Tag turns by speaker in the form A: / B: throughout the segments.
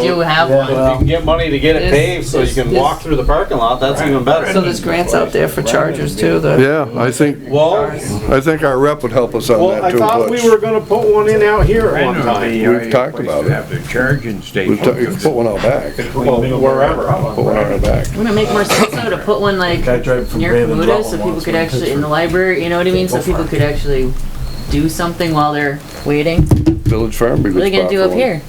A: do have
B: yeah.
A: one.
B: Well,
C: If you can get money to get it
D: This-
C: paved so you can
D: this-
C: walk through the parking lot, that's even
D: So
C: better.
D: there's grants out there for chargers too, the,
E: Yeah, I think,
C: Well,
E: I think our rep would help us on
C: well, I
E: that too,
C: thought we were
E: Butch.
C: gonna put one in out here at one time.
E: We've talked about it.
F: Have their charging
E: We've ta- You
F: station.
E: can put one out back, put
C: Well, wherever.
E: one out back.
A: Wouldn't it make more sense though to put one like
B: I drive from
A: near
B: Van and
A: Kamuta
B: Dublin
A: so people
B: once
A: could
B: with a
A: actually, in
B: picture.
A: the library, you know what I mean? So
B: Go
A: people
B: for it.
A: could actually do something while they're waiting.
E: Village Farm would be
A: What are they
E: a
A: gonna
E: good
A: do
E: spot
A: up
E: for one.
A: here?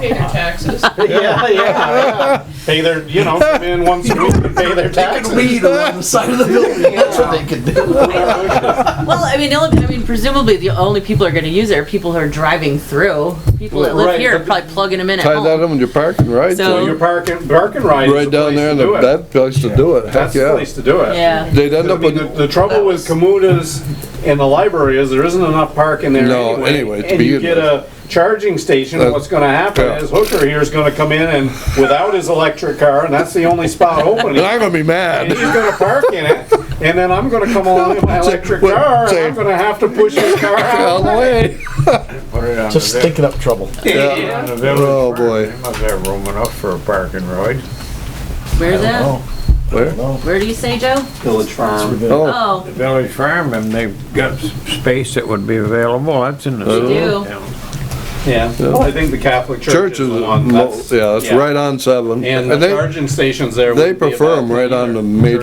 D: pay their taxes.
C: Yeah, yeah, yeah. Pay their, you know, come in once a week and pay their taxes.
B: Weed along the side of the building, that's what they could do.
A: Well, I mean, the only, I mean, presumably the only people are gonna use it are people who are driving through. People that live
C: Right,
A: here are
C: but-
A: probably plugging them in at
E: Tie that
A: home.
E: in with your parking, right?
A: So-
C: So your parking, parking ride is
E: Right
C: the
E: down
C: place
E: there,
C: to
E: and
C: do it.
E: that place to do it,
C: That's
E: heck
C: the
E: yeah.
C: place to do it.
A: Yeah.
E: They'd end
C: I
E: up
C: mean, the,
E: with,
C: the trouble with Kamuta's and the library is there isn't enough parking there
E: No,
C: anyway.
E: anyway, to
C: And you
E: begin
C: get a charging station,
E: That-
C: what's gonna happen
E: yeah.
C: is Hooker here is gonna come in and without his electric car, and that's the only spot open.
E: and I'm gonna be
C: And he's
E: mad.
C: gonna park in it, and then I'm gonna come along with my electric
E: What-
C: car, and
E: say-
C: I'm gonna have to push his car
E: All the
C: out.
E: way.
F: Put it on the
B: Just
F: vill-
B: stinking up trouble.
E: Yeah.
F: on the village
E: Oh,
F: farm.
E: boy.
F: They must have room enough for a parking ride.
A: Where's that?
B: Oh,
E: Where?
B: no.
A: Where do you say, Joe?
C: Village farm.
E: Oh,
A: Oh,
F: The village farm, and they've got s- space that would be available, that's in the.
E: They
A: do.
F: down.
C: Yeah, well, I think the Catholic Church is
E: church uh, is,
C: the one,
E: mo-
C: that's,
E: yeah, that's
C: yeah.
E: right on seven.
C: and the
E: they-
C: charging stations there.
E: they
C: wouldn't be a
E: prefer
C: bad
E: 'em
C: thing
E: right on
C: either.
E: the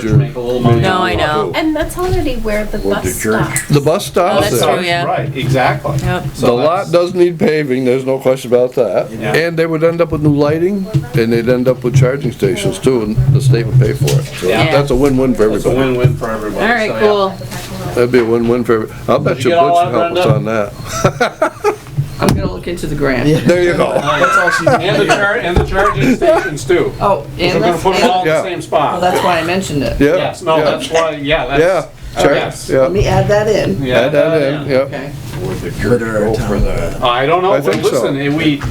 C: Church
E: major-
C: Make a little money.
A: no, I know. Oh,
G: And that's already where the
F: Well, the
G: bus
F: church-
G: stops.
E: The bus stops
A: that's
E: there.
A: true, yeah.
C: Right, exactly.
A: Yep.
E: The lot does need paving, there's no question about that.
C: Yeah.
E: And they would end up with new lighting, and they'd end up with charging stations too, and the state would pay for it. So
C: Yeah.
E: that's a win-win for
C: It's a
E: everybody.
C: win-win for everybody.
A: all right,
C: so, yeah.
A: cool.
E: That'd be a win-win for, every- I'll bet
C: you
E: you Butch
C: get all
E: would
C: that,
E: help us
C: Brenda?
E: on that.
D: I'm gonna look into the grant.
E: There you go.
B: That's all she's
C: And the char, and the charging stations too.
D: Oh,
C: We're
D: and
C: gonna
D: that's,
C: put them all in the
E: Yeah.
C: same
D: well,
C: spot.
D: that's why I mentioned it.
E: Yeah.
C: Yes, no,
E: yeah,
C: that's why, yeah,
E: Yeah,
C: that's. uh, yes.
E: sure,
D: Let
E: yeah.
D: me add that in.
C: Yeah,
E: Add that in,
C: yeah.
E: yeah.
D: Okay.
F: Would the church go for the,
C: I don't know,
E: I
C: but
E: think so.
C: listen, if we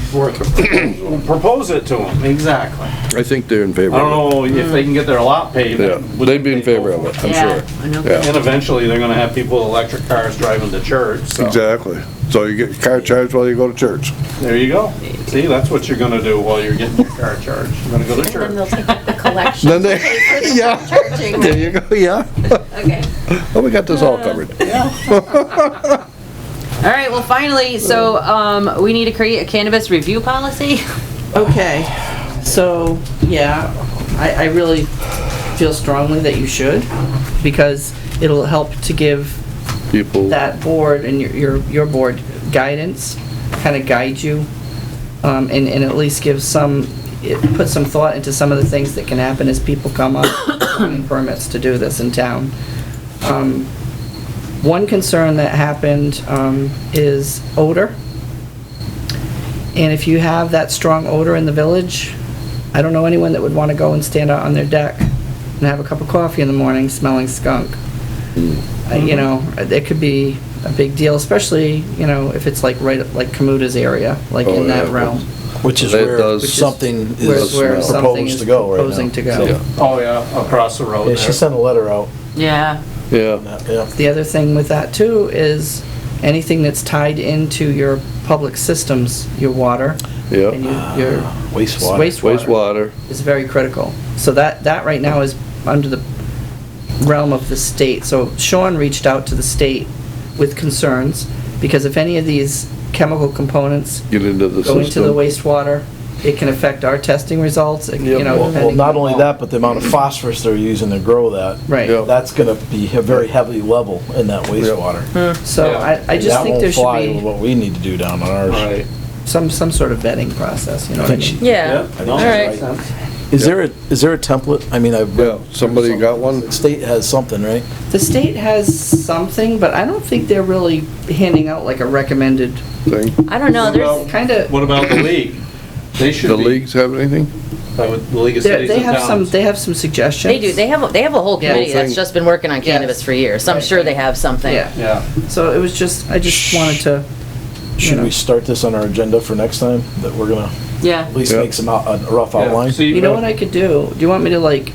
C: we'll propose it to them, exactly. I
E: I think they're in favor
C: don't
E: of
C: know if they can get their lot
E: it.
C: paved.
E: Yeah, they'd be in favor of it, I'm
A: Yeah,
E: sure.
A: I know.
E: Yeah.
C: And eventually, they're gonna have people with electric cars driving to church, so,
E: Exactly. So you get your car charged while you go to church.
C: there you go. See, that's what you're gonna do while you're getting your car charged, you're gonna go to
G: And then they'll
C: church.
G: take up the collection.
E: Then they, yeah, there you go, yeah.
G: Okay.
E: Oh, we got this all covered.
A: All right, well, finally, so, um, we need to create a cannabis review policy.
D: Okay, so, yeah, I, I really feel strongly that you should, because it'll help to give
E: People,
D: that board and your, your, your board guidance, kind of guide you, um, and, and at least give some, it put some thought into some of the things that can happen as people come up with permits to do this in town. Um, One concern that happened, um, is odor. And if you have that strong odor in the village, I don't know anyone that would want to go and stand out on their deck and have a cup of coffee in the morning smelling skunk. Uh, you know, it could be a big deal, especially, you know, if it's like right, like Kamuta's area, like
E: Oh,
D: in that
E: yeah.
D: realm.
B: Which is
E: That
B: where
E: does-
B: something
D: Where-
E: Does
B: is uh,
D: where
E: smell.
D: something
B: proposed
D: is
B: to go right now.
D: proposing to
E: Yeah.
D: go.
C: Oh, yeah, across the road
B: Yeah, she
C: there.
B: sent a letter out,
A: Yeah,
E: yeah.
B: yeah.
D: The other thing with that too is anything that's tied into your public systems, your water and
E: Yeah,
D: your- your
B: Wastewater.
D: wastewater
E: wastewater,
D: is very critical. So that, that right now is under the realm of the state. So Sean reached out to the state with concerns because if any of these chemical components
E: get into the
D: go into the
E: system.
D: wastewater, it can affect our testing results, it- you
E: Yep.
D: know,
B: Well, well,
D: depending.
B: not only that, but the amount of phosphorus they're using to grow that.
E: Yeah.
D: Right,
B: That's gonna be a very heavy level in that wastewater.
D: so I, I
B: And
D: just think there
B: That won't fly
D: should
B: with
D: be
B: what we need to do down on ours.
C: Right.
D: some, some sort of vetting process, you know what I
B: I think
D: mean?
B: she-
A: yeah.
B: I think
C: No,
B: she's
C: makes
B: right.
C: sense.
B: Is there a, is there a template? I mean, I've.
E: Yeah, somebody got one?
B: State has something, right?
D: The state has something, but I don't think they're really handing out like a recommended,
E: Thing.
A: I don't know, there's,
D: kinda,
C: What about the league? They should
E: The
C: be-
E: leagues have anything?
C: I would- The League of
D: they
C: Cities
D: they
C: and
D: have some,
C: Towns.
D: they have some suggestions.
A: they do, they have, a- they have a whole
D: Yeah.
A: committee that's
E: Thing.
A: just been working on
D: Yeah.
A: cannabis for years, so I'm
D: Right.
A: sure they have something.
D: Yeah,
C: Yeah.
D: so it was just, I just wanted to,
B: Should
D: know.
B: we start this on our agenda for next time? That we're gonna
A: Yeah.
B: at least
E: Yeah.
B: make some out, a rough
C: Yeah.
B: outline?
C: See,
D: you know what I could do? Do you want me to like,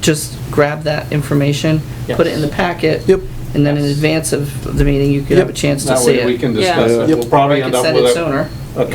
D: just grab that information, put it in the packet?
B: Yep.
D: And then in advance of the meeting, you could have a chance to
C: That
D: see
C: way we
D: it.
C: can
A: Yeah.
C: discuss it.
E: Yeah.
C: We'll probably
D: I
C: end
D: could
C: up
D: send
C: with
D: it
C: a,
D: sooner.